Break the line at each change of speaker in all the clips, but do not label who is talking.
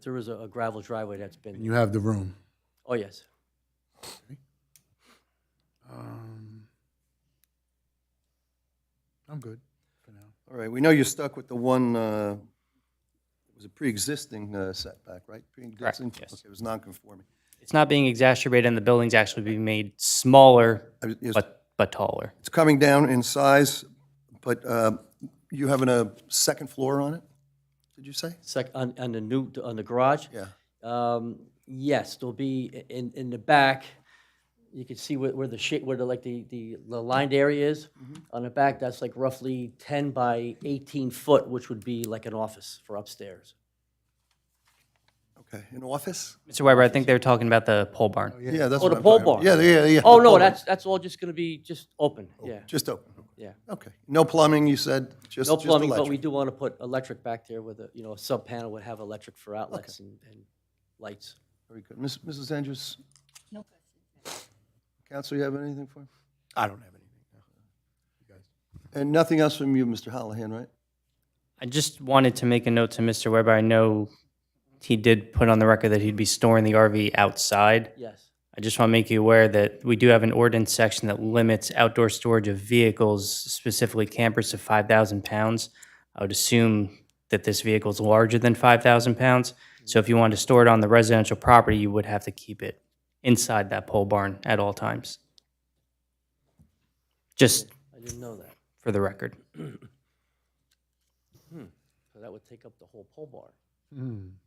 there is a a gravel driveway that's
And
been,
you have the room.
oh, yes.
Um, I'm good for now.
All right, we know you're stuck with the one, uh, it was a pre-existing uh, setback, right? Pre-existing.
yes.
Okay, It was non-conforming.
It's not being exacerbated, and the building's actually being made smaller,
I was- yes,
but, but taller.
It's coming down in size, but uh, you having a second floor on it, did you say?
Sec, on, on the new, on the garage?
Yeah.
Um, yes, there'll be, i- in, in the back, you can see where, where the shape, where the, like, the, the the lined area is.
Mm-hmm.
On the back, that's like roughly ten by eighteen foot, which would be like an office for upstairs.
Okay, an office?
Mr. Weber, I think they were talking about the pole barn.
Yeah, that's
Oh,
what
the
I'm
pole
talking
barn?
about. Yeah, yeah, yeah.
Oh,
the
no,
pole barn.
that's, that's all just gonna be just open, yeah,
Just open,
yeah.
okay. No plumbing, you said, just
No
just
plumbing, but we
electric.
do wanna put electric back there with a, you know, a sub-panel would have electric for outlets and, and lights.
Very good. Miss- Mrs. Andrews? No questions. Counsel, you have anything for him?
I don't have anything.
And nothing else from you, Mr. Hallahan, right?
I just wanted to make a note to Mr. Weber. I know he did put on the record that he'd be storing the RV outside.
Yes,
I just want to make you aware that we do have an ordinance section that limits outdoor storage of vehicles, specifically campers, to 5,000 pounds. I would assume that this vehicle is larger than 5,000 pounds. So if you wanted to store it on the residential property, you would have to keep it inside that pole barn at all times. Just
I didn't know that.
for the record.
So that would take up the whole pole barn.
Hmm.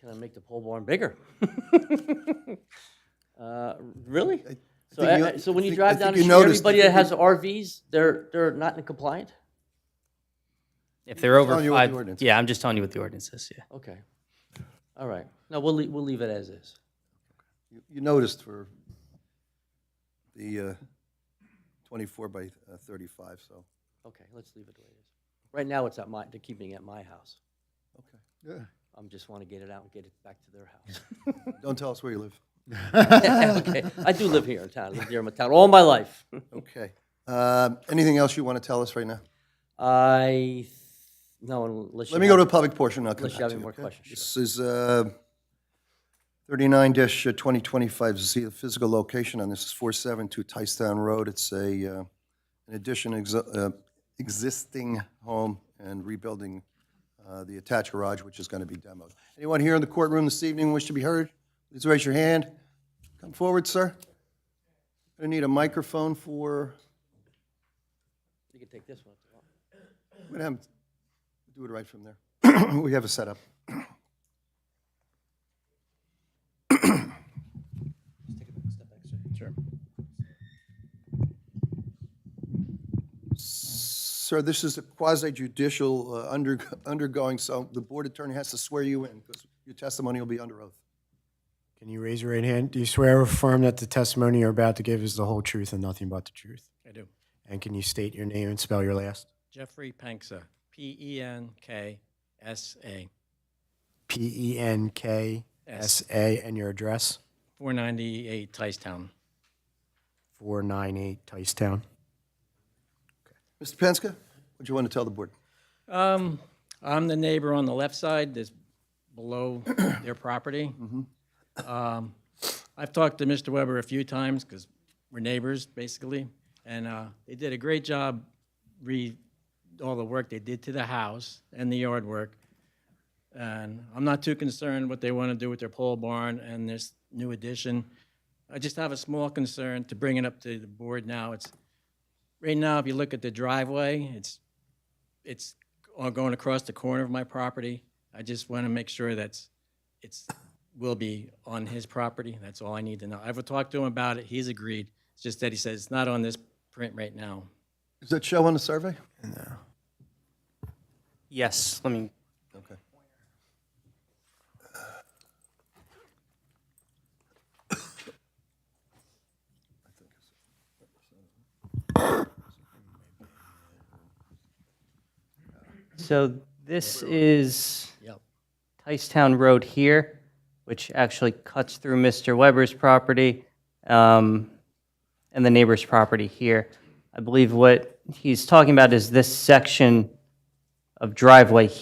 Can I make the pole barn bigger? Uh, Really? So,
think
I-
you-
I- so when
I
you
think- I
drive
think
down
you
the street,
noticed- I
everybody that
think you-
has RVs, they're, they're not in compliant?
If they're over
telling you what the
five,
ordinance
yeah, I'm just telling you what the ordinance is, yeah.
Okay. All right. No, we'll, lea- we'll leave it as is.
You- You noticed for the uh, 24 by uh, 35, so,
Okay, let's leave it the way it is. Right now, it's at my, they're keeping it at my house.
okay. Yeah.
I'm just want to get it out and get it back to their house.
Don't tell us where you live.
Okay, I do live here in town, I lived here in my town all my life.
Okay. Um, Anything else you want to tell us right now?
I, th- no, unless you.
Let me go
have-
to the public portion, I'll come
Unless
back
you have
to you.
any more
okay?
questions, sure.
This is uh, 39-2025Z, the physical location on this is 472 Tystown Road. It's a, uh, an addition, ex- uh, existing home and rebuilding uh, the attached garage, which is going to be demoed. Anyone here in the courtroom this evening wish to be heard? Please raise your hand. Come forward, sir. I need a microphone for,
You can take this one. if you want.
we're going to have, do it right from there. We have a setup. Sir, this is a quasi-judicial uh, under- undergoing, so the board attorney has to swear you in, because your testimony will be under oath.
Can you raise your right hand? Do you swear or affirm that the testimony you're about to give is the whole truth and nothing but the truth?
I do.
And can you state your name and spell your last?
Jeffrey Penksa, P E N K S A,
P E N K S A and your address?
498 Ticetown.
498 Ticetown.
Mr. Penska, what do you want to tell the board?
Um, I'm the neighbor on the left side, that's below their property. Um, I've talked to Mr. Weber a few times, because we're neighbors, basically, and, uh, they did a great job re, all the work they did to the house and the yard work. And I'm not too concerned what they want to do with their pole barn and this new addition. I just have a small concern to bring it up to the board now. It's, right now, if you look at the driveway, it's it's all going across the corner of my property. I just want to make sure that's, it's, will be on his property. That's all I need to know. I've talked to him about it. He's agreed. It's just that he says it's not on this print right now.
Does that show on the survey?
Yes, let me,
Okay.
so this is
Yep.
Ticetown Road here, which actually cuts through Mr. Weber's property um, and the neighbor's property here. I believe what he's talking about is this section of driveway